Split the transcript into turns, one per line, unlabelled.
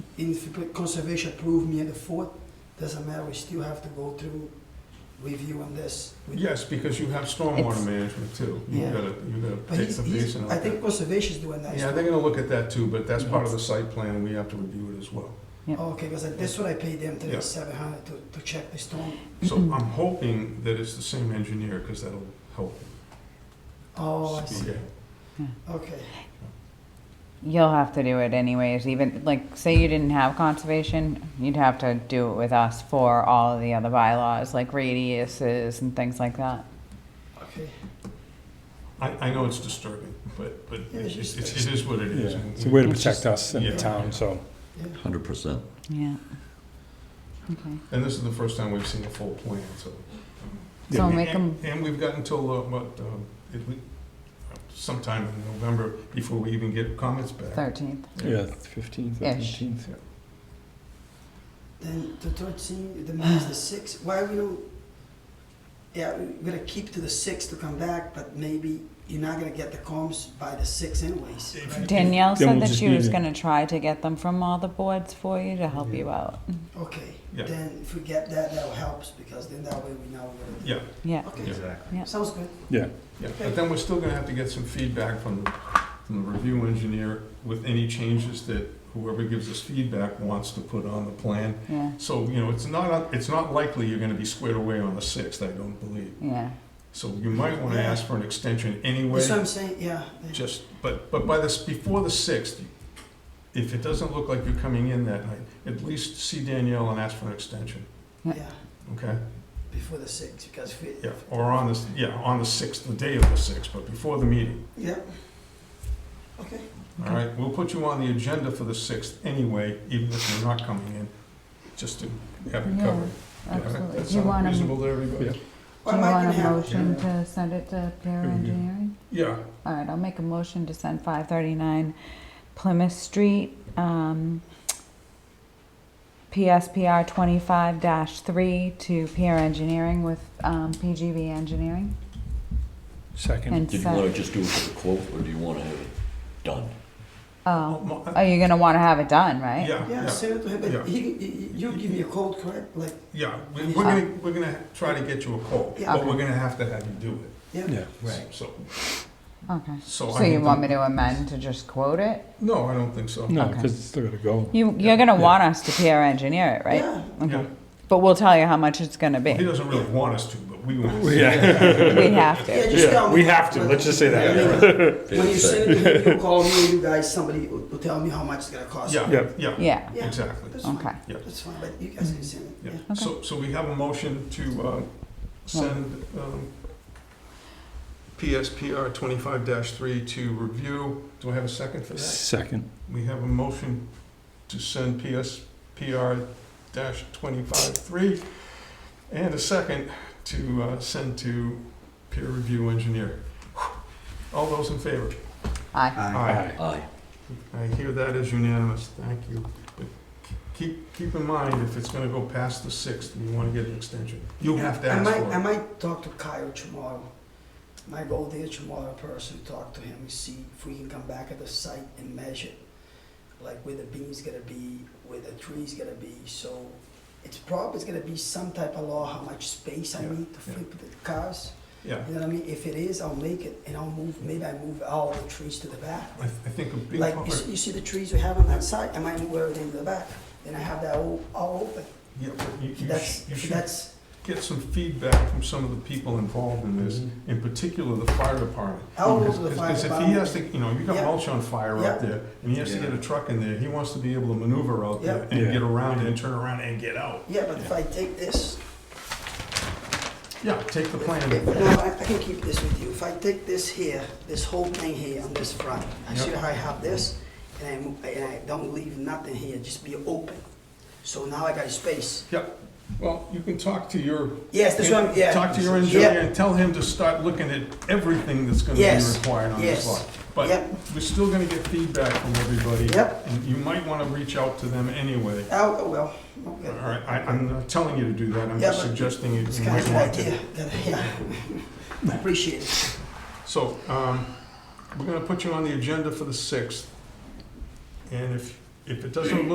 even if you put conservation approved me at the fourth, doesn't matter, we still have to go through review on this. We-
Yes, because you have stormwater
It's-
management too. You
Yeah.
gotta, you
But
gotta
he-
take some
he's,
basin
I
out
think
there.
conservation's doing that.
Yeah, they're gonna look at that too, but that's part of the site plan, and we have to review it as well.
Oh, Okay, because that's what I paid them,
Yeah.
thirty-seven hundred to, to check the storm.
So
Mm-hmm.
I'm hoping that it's the same engineer, because that'll help.
Oh, I see,
speed it.
okay.
You'll have to do it anyways, even, like, say you didn't have conservation, you'd have to do it with us for all of the other bylaws, like radiuses and things like that.
Okay,
I, I know it's disturbing, but, but
Yeah, it's
it's, it's- it is what it is.
Yeah,
and
it's a way to
It's
protect us and
yeah.
the town, so.
yeah,
Hundred percent.
Yeah. Okay.
And this is the first time we've seen a full plan, so.
So
And-
make them,
And and we've got until, uh, what, um, it- we- sometime in November before we even get comments back.
thirteenth.
Yeah, fifteenth,
Ish.
fifteenth.
then the thirteen, the meeting's the sixth, why we don't, yeah, we're gonna keep to the sixth to come back, but maybe you're not gonna get the comms by the sixth anyways,
If-
right?
Danielle
Then we'll
said that
just
she was
need it.
gonna try to get them from all the boards for you to help you out.
Okay,
Yeah.
then if we get that, that helps, because then that way we know what to do.
Yeah,
Yeah,
Okay,
Exactly.
Yeah.
sounds good,
Yeah,
yeah, but then we're still gonna have to get some feedback from, from the review engineer with any changes that whoever gives us feedback wants to put on the plan.
yeah,
So, you know, it's not, it's not likely you're gonna be squared away on the sixth, I don't believe.
yeah.
So you might wanna ask for an extension anyway.
that's what I'm saying, yeah, yeah.
Just, but, but by this, before the sixth, if it doesn't look like you're coming in that night, at least see Danielle and ask for an extension,
yeah,
okay?
before the sixth, because we,
Yeah, or on this, yeah, on the sixth, the day of the sixth, but before the meeting,
yeah, okay.
all right? We'll put you on the agenda for the sixth anyway, even if you're not coming in, just to have it
Yeah,
covered. Yeah,
Absolutely.
That
Do you
sound
want 'em-
reasonable to everybody?
Do
Or
you
am I gonna
want a
have-
motion to send it to peer
Yeah.
engineering?
Yeah,
All right, I'll make a motion to send five thirty-nine Plymouth Street, um, PSPR twenty-five three to peer engineering with, um, PGB engineering.
second.
And
Did you wanna
so,
just do it for the quote, or do you wanna have it done?
oh,
Mo- uh,
are you gonna wanna have it done, right?
yeah,
Yeah,
yeah,
send it to him,
Yeah.
but he, he- you give me a call, correct, like,
yeah. We- We're
Uh,
gonna, we're gonna try to get you a call,
Yeah.
but we're gonna have to have you do it.
Yeah,
So,
Okay.
so. I
So you
mean,
want me to amend to just quote it?
No, I don't think so.
no,
Okay.
because it's still gotta go.
You, you're gonna want us to peer engineer it, right?
Yeah,
Yeah.
Okay. But we'll tell you how much it's gonna
He
be.
doesn't really want us to, but we want to.
Yeah.
We have
yeah,
to.
just tell me.
We have to, let's just say
I
that.
mean, When you
Fair
send it to him, you call me, you guys, somebody will will tell me how much it's gonna cost.
Yeah,
Yep.
yeah,
Yeah,
Yeah,
exactly.
That's fine,
Okay.
Yeah.
that's fine, but you guys can send it,
Yeah.
yeah.
So, so we have a motion to uh, send um, PSPR 25-3 to review. Do I have a second for that?
Second.
We have a motion to send PSPR-25-3 and a second to uh, send to peer review engineer. All those in favor?
aye.
Aye.
Aye.
I hear that is unanimous, thank you. But keep, keep in mind, if it's gonna go past the sixth, and you wanna get an extension, you have to
I
ask
might, I
for it.
might talk to Kyle tomorrow. Might go there tomorrow in person, talk to him, and see if we can come back at the site and measure, like where the beam's gonna be, where the tree's gonna be, so it's probably is gonna be some type of law, how much space I
Yeah,
need to
yeah.
flip the cars.
Yeah,
You know what I mean? If it is, I'll make it, and I'll move, maybe I move all the trees to the back.
I, I think a big
Like, you
part,
see, you see the trees we have on that side, I might move everything to the back, then I have that all, all open.
yeah, but you, you sh-
That's,
you should
that's,
get some feedback from some of the people involved in this, in particular the fire department.
I'll go
Because-
to Mm-hmm. the fire
Because if he
department.
has to, you know, you got
Yeah.
mulch on fire
Yeah.
out there, and he has to
Yeah.
get a truck in there, he wants to be able to maneuver out there
Yeah.
and
Yeah.
get around and turn around and get out.
Yeah, but if I take this,
Yeah, take the plan.
No, I, I can keep this with you. If I take this here, this whole thing here on this front, I see
Yep.
how I have this, and I, mo- and I don't leave nothing here, just be open. So now I got space.
Yep. Well, you can talk to your.
Yes, that's what I'm- yeah.
Talk to your engineer
Yeah.
and tell him to start looking at everything that's gonna be
Yes,
required on this
yes,
lot. But
yep.
we're still gonna get feedback from everybody.
Yep.
And you might wanna reach out to them anyway.
Oh, oh, well,
All
okay.
right, I, I'm not telling you to do that, I'm
Yeah,
just
but
suggesting you
It's
you
kind of
might
an
want to.
idea, that, yeah. I Appreciate it.
So, um, we're gonna put you on the agenda for the sixth. And if, if it doesn't look